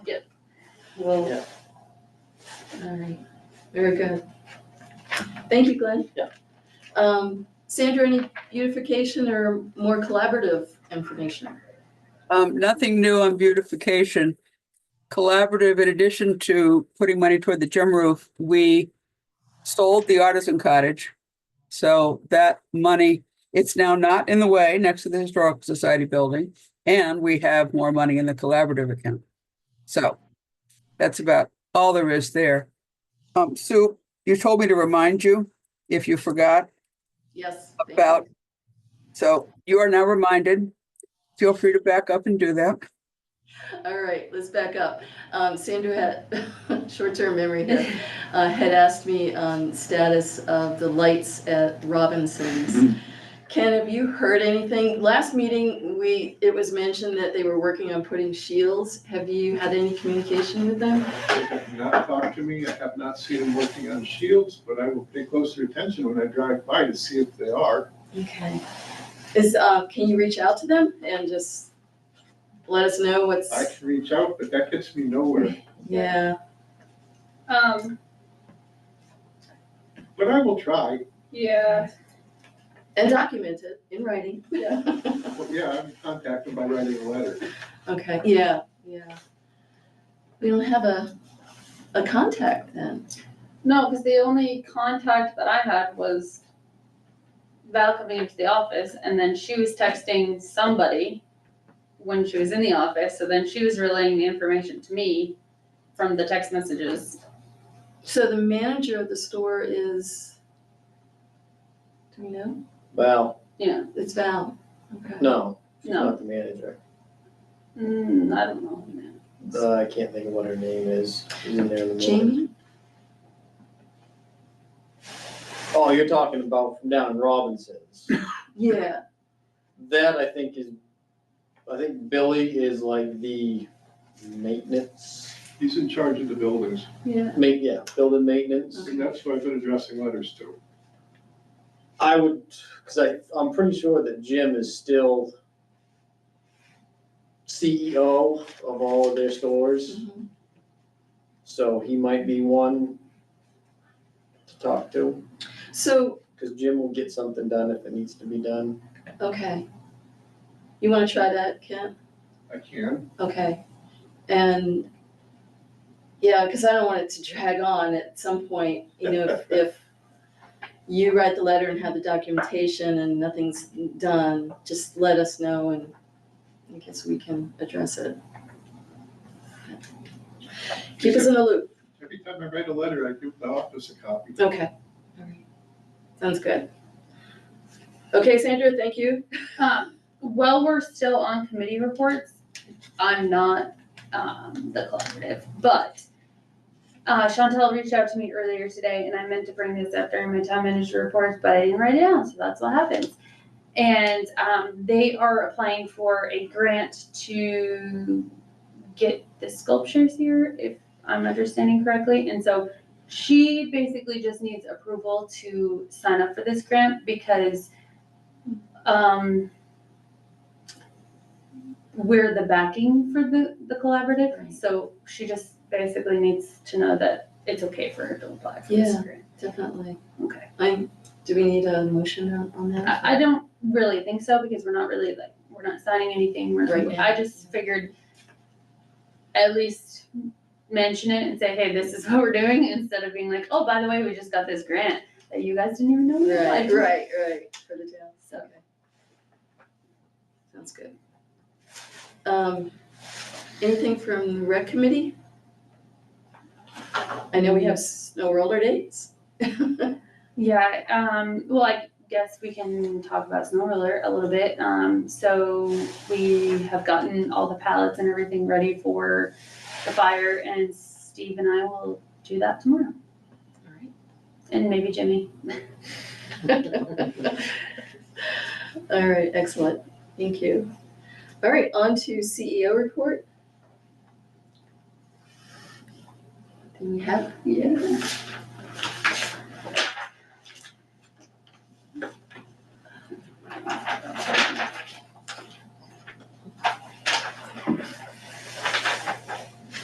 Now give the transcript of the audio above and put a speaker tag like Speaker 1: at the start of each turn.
Speaker 1: Well,
Speaker 2: Yeah.
Speaker 1: All right, very good. Thank you, Glenn.
Speaker 2: Yeah.
Speaker 1: Um, Sandra, any beautification or more collaborative information?
Speaker 3: Um, nothing new on beautification. Collaborative, in addition to putting money toward the gym roof, we sold the artisan cottage. So that money, it's now not in the way next to the Historical Society building, and we have more money in the collaborative account. So that's about all there is there. Um, Sue, you told me to remind you if you forgot.
Speaker 1: Yes. thank you.
Speaker 3: About- So you are now reminded. Feel free to back up and do that.
Speaker 1: All right, let's back up. Um, Sandra had, short-term memory here, uh, had asked me on status of the lights at Robinson's. Ken, have you heard anything? Last meeting, we, it was mentioned that they were working on putting shields. Have you had any communication with them?
Speaker 4: They have not talked to me, I have not seen them working on shields, but I will pay closer attention when I drive by to see if they are.
Speaker 1: Okay. Is, uh, can you reach out to them and just let us know what's,
Speaker 4: I can reach out, but that gets me nowhere.
Speaker 1: yeah,
Speaker 5: Um,
Speaker 4: But I will try,
Speaker 5: yeah,
Speaker 1: and document it in writing.
Speaker 4: Well, yeah, I'm contacted by writing a letter.
Speaker 1: Okay, yeah, yeah. We don't have a, a contact then.
Speaker 5: no, because the only contact that I had was Val coming into the office, and then she was texting somebody when she was in the office, so then she was relaying the information to me from the text messages.
Speaker 1: So the manager of the store is, do we know?
Speaker 2: Well,
Speaker 1: It's Val. Okay.
Speaker 2: no, she's
Speaker 5: No,
Speaker 2: not the manager.
Speaker 5: mm, I don't know, man.
Speaker 2: Uh, I can't think of what her name is. She's in there in the morning.
Speaker 1: Jamie?
Speaker 2: Oh, you're talking about from down in Robinson's.
Speaker 1: Yeah,
Speaker 2: That I think is, I think Billy is like the maintenance,
Speaker 4: He's in charge of the buildings,
Speaker 1: yeah.
Speaker 2: ma- yeah, building maintenance.
Speaker 4: and that's who I've been addressing letters to.
Speaker 2: I would, because I, I'm pretty sure that Jim is still CEO of all of their stores,
Speaker 1: Mhm.
Speaker 2: so he might be one to talk to,
Speaker 1: So,
Speaker 2: because Jim will get something done if it needs to be done.
Speaker 1: okay. You wanna try that, Ken?
Speaker 4: I can,
Speaker 1: Okay, and, yeah, because I don't want it to drag on at some point, you know, if, if you write the letter and have the documentation and nothing's done, just let us know and I guess we can address it. Keep us in the loop,
Speaker 4: every time I write a letter, I give the office a copy.
Speaker 1: okay, all right, sounds good. Okay, Sandra, thank you.
Speaker 5: Um, while we're still on committee reports, I'm not, um, the collaborative, but uh, Chantel reached out to me earlier today and I meant to bring this up during my town manager reports, but I didn't write it down, so that's what happens. And, um, they are applying for a grant to get the sculptures here, if I'm understanding correctly. And so she basically just needs approval to sign up for this grant because um, we're the backing for the, the
Speaker 1: Right.
Speaker 5: collaborative, so she just basically needs to know that it's okay for her to apply for this
Speaker 1: Yeah.
Speaker 5: grant.
Speaker 1: Definitely.
Speaker 5: Okay.
Speaker 1: I, do we need a motion on, on that?
Speaker 5: I, I don't really think so, because we're not really like, we're not signing anything, we're,
Speaker 1: Right now.
Speaker 5: I just figured at least mention it and say, hey, this is what we're doing, instead of being like, oh, by the way, we just got this grant that you guys didn't even know we applied
Speaker 1: Right,
Speaker 5: for."
Speaker 1: right, right, for the town,
Speaker 5: So.
Speaker 1: okay. Sounds good. Um, anything from the rec committee? I know we have snow roller dates.
Speaker 5: Yeah, um, well, I guess we can talk about snow roller a little bit. Um, so we have gotten all the pallets and everything ready for the fire and Steve and I will do that tomorrow. And maybe Jimmy.
Speaker 1: All right, excellent, thank you. All right, on to E CEO report. Do we have, yeah,